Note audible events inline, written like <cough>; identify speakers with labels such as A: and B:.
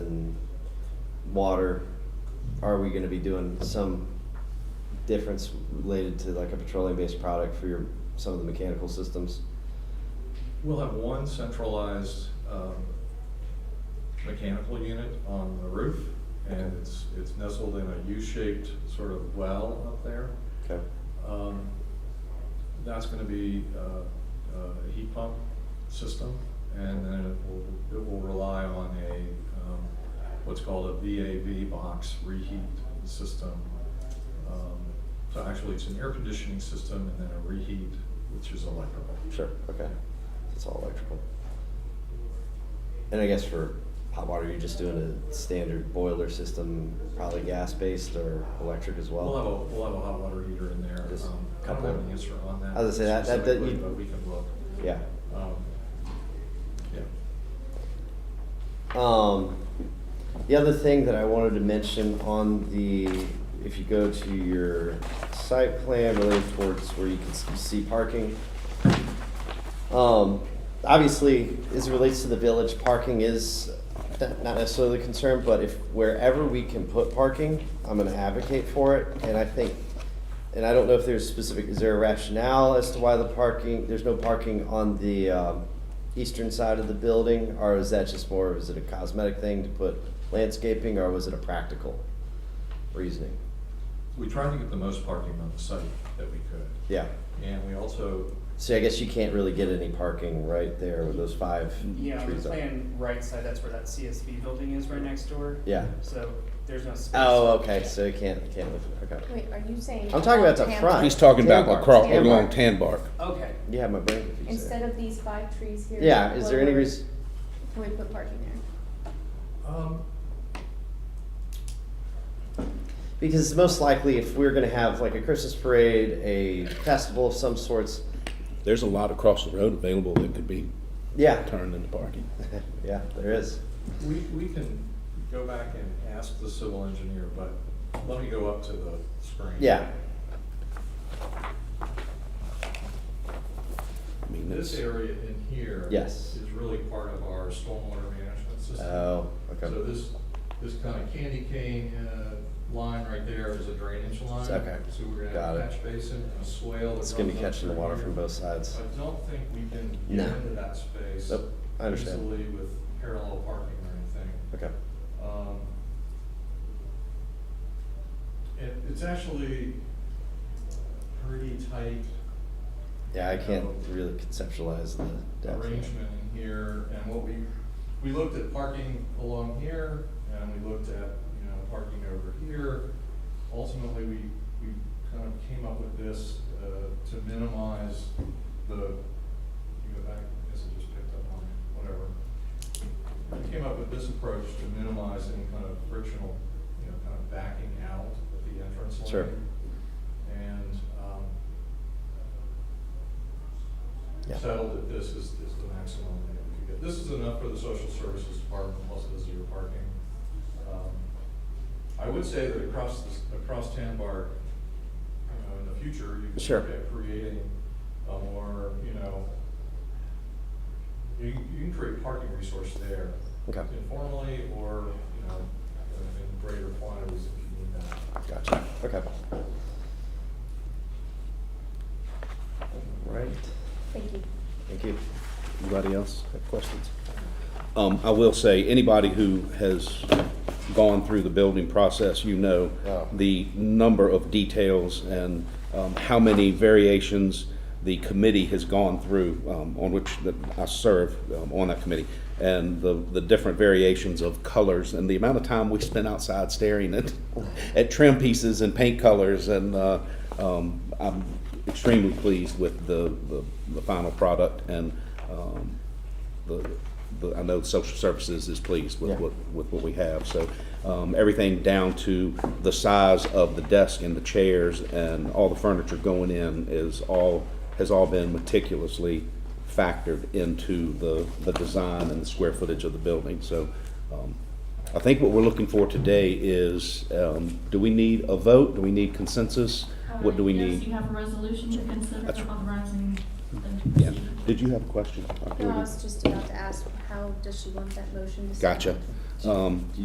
A: water, are we gonna be doing some difference related to like a petroleum-based product for your, some of the mechanical systems?
B: We'll have one centralized um, mechanical unit on the roof, and
A: Okay.
B: it's, it's nestled in a U-shaped sort of well up there.
A: Okay,
B: Um, That's gonna be uh, uh, a heat pump system, and then it will, it will rely on a, um, what's called a VAV box reheat system. Um, So actually, it's an air conditioning system and then a reheat, which is electrical.
A: sure, okay. It's all electrical. And I guess for hot water, you're just doing a standard boiler system, probably gas-based or electric as well?
B: We'll have a, we'll have a hot water heater in there.
A: Just
B: Um, I don't
A: couple.
B: have an answer on that.
A: I was gonna say, that- that- that
B: specifically,
A: you-
B: But we can look.
A: Yeah.
B: Um, Yeah.
A: Um, the other thing that I wanted to mention on the, if you go to your site plan related towards where you can s- see parking. Um, obviously, as it relates to the village, parking is not not necessarily a concern, but if wherever we can put parking, I'm gonna advocate for it, and I think, and I don't know if there's specific, is there a rationale as to why the parking, there's no parking on the, um, eastern side of the building, or is that just more, is it a cosmetic thing to put landscaping, or was it a practical reasoning?
B: We tried to get the most parking on the site that we could.
A: Yeah,
B: And we also,
A: so I guess you can't really get any parking right there with those five trees
C: Yeah,
A: up.
C: on the plan right side, that's where that CSV building is right next door.
A: Yeah.
C: So there's no space.
A: Oh, okay, so you can't, you can't live, okay.
D: Wait, are you saying?
A: I'm talking about the
D: Tam-
A: front.
E: He's talking about
A: Tan bark.
E: across
D: Tan
E: along
A: bark.
E: Tan Bark.
C: Okay,
A: You have my brain confused. there.
D: Instead of these five trees here?
A: Yeah, is there any
D: where
A: reason,
D: Can we put parking there?
B: um,
A: because most likely if we're gonna have like a Christmas parade, a festival of some sorts,
E: There's a lot across the road available that could be
A: yeah,
E: turned into parking.
A: yeah, there is.
B: we, we can go back and ask the civil engineer, but let me go up to the screen.
A: Yeah,
E: I mean,
B: This
E: that's-
B: area in here is
A: Yes.
B: really part of our stormwater management system.
A: oh, okay.
B: So this, this kind of candy cane uh, line right there is a drainage line.
A: Okay.
B: So we're gonna
A: Got
B: have a
A: it.
B: catch basin, and a swale. that
A: It's gonna be
B: runs up
A: catching the
B: through
A: water
B: here.
A: from both sides.
B: I don't think we can
A: No.
B: get into that space.
A: Nope, I understand.
B: Easily with parallel parking or anything.
A: Okay,
B: Um, It, it's actually pretty tight
A: yeah, I can't really conceptualize the depth.
B: arrangement in here, and what we, we looked at parking along here, and we looked at, you know, parking over here. Ultimately, we, we kind of came up with this, uh, to minimize the, you go back, I guess I just picked up on it, whatever. We came up with this approach to minimize any kind of frictional, you know, kind of backing out at the entrance lane.
A: Sure.
B: And, um,
A: Yeah.
B: settled that this is, is the maximum that we could get. This is enough for the social services department plus the zero parking. Um, I would say that across, this- across Tan Bar, you know, in the future, you could
A: Sure.
B: look at creating a more, you know, you, you can create parking resource there
A: Okay,
B: informally or, you know, in greater quantities if you need that.
A: gotcha, okay. Right,
D: Thank you.
A: thank you.
E: Anybody else have questions? Um, I will say, anybody who has gone through the building process, you know
A: Yeah.
E: the number of details and um, how many variations the committee has gone through, um, on which that I serve um, on that committee, and the, the different variations of colors and the amount of time we spent outside staring at, <laughs> at trim pieces and paint colors and, uh, um, I'm extremely pleased with the, the, the final product and, um, the, the, I know social services is pleased
A: Yeah.
E: with what, with what we have. So, um, everything down to the size of the desk and the chairs and all the furniture going in is all, has all been meticulously factored into the, the design and the square footage of the building. So, um, I think what we're looking for today is, um, do we need a vote? Do we need consensus? What do we
F: Uh, Yes,
E: need?
F: you have a resolution to consider
E: That's right.
F: authorizing the
E: Yeah. Did you have a question?
D: No, I was just about to ask, how does she want that motion to sound?
E: Gotcha. Um,